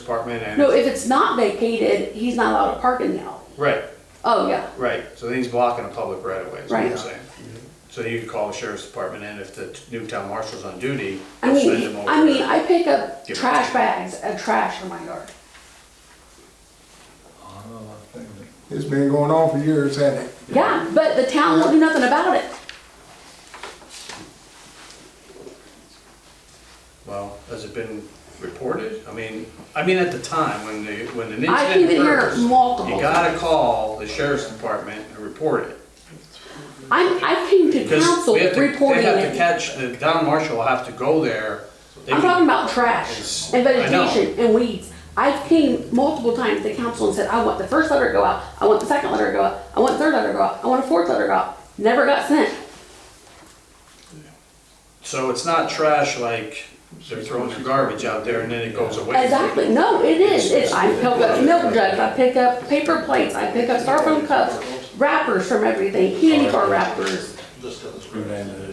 department and. No, if it's not vacated, he's not allowed to park in the alley. Right, Oh, yeah, right, so then he's blocking a public right of way, is what you're Right. saying. So you could call the sheriff's department and if the new town marshal's on duty, I they'll send mean, him over. I mean, I pick up Give it trash to bags of trash from my yard. It's been going on for years, hasn't it? Yeah, but the town won't do nothing about it. Well, has it been reported? I mean, I mean, at the time, when the, when an I keep incident it here occurs, you multiple times. gotta call the sheriff's department and report it. I'm, I came to Because council we have to, they reporting have to it. catch, the town marshal will have to go there. They I'm can- talking about trash It's- and I know. vegetation and weeds. I came multiple times to council and said, I want the first letter to go out, I want the second letter to go out, I want the third letter to go out, I want a fourth letter to go out. Never got sent. So it's not trash like they're throwing their garbage out there and then it goes away. Exactly, no, it is, it's, I pick up milk jugs, I pick up paper plates, I pick up styrofoam cups, wrappers from everything, candy bar wrappers.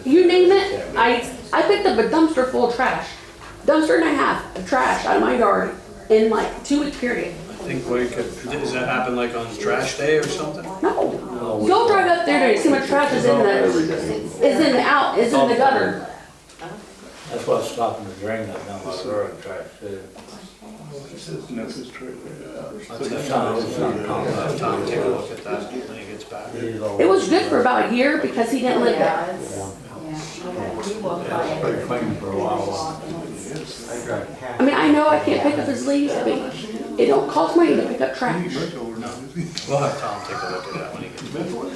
You name it, I, I picked up a dumpster full of trash, dumpster and a half of trash out of my yard in like two week period. I think we could, does that happen like on trash day or something? No, go drive up there and see how much trash is in the, is in the out, is in the gutter. That's what's stopping the drain that down by the road track too. It's not- it's not compact. Tom, take a look at that when he gets back. These old- It was good for about a year because he didn't live there. Yeah, it's, yeah. He walked by it. Pretty clean for a while, while. I mean, I know I can't pick up his leaves, but it don't cost money to pick up trash. We'll have Tom take a look at that when he gets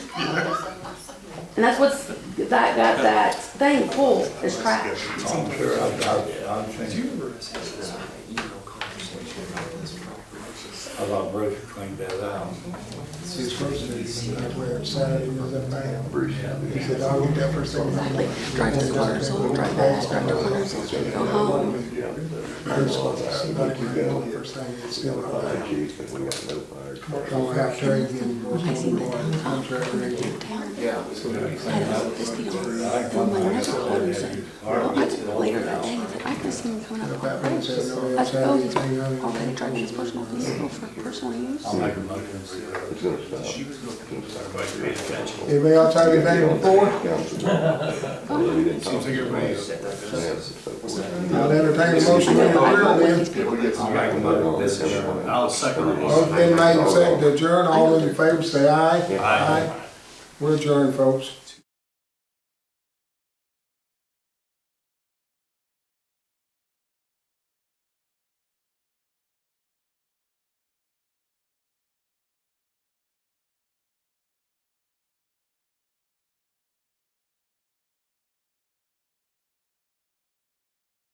back. And that's what's, that got that thing full is trash. I'm sure I've got it, I'm thinking. I thought Bruce cleaned that out. His first meeting, I where Saturday was in town. He said, I will that first thing. Exactly. Drive to the water, so drive back, drive to the water, so go home. First one, but you go, the first thing, it's still not there. Don't have to again. I seen the town. Yeah. This people, and my never called me saying, well, I took later that day, I said, I could see him coming up on bridge. I said, oh, he's already driving his personal vehicle for personal use. I'll make a motion for you. Anybody else have anything before? I'll entertain a motion to adjourn then. I'll second the motion. Motion been made and seconded to adjourn. All those in favor say aye. Aye. We're adjourned, folks.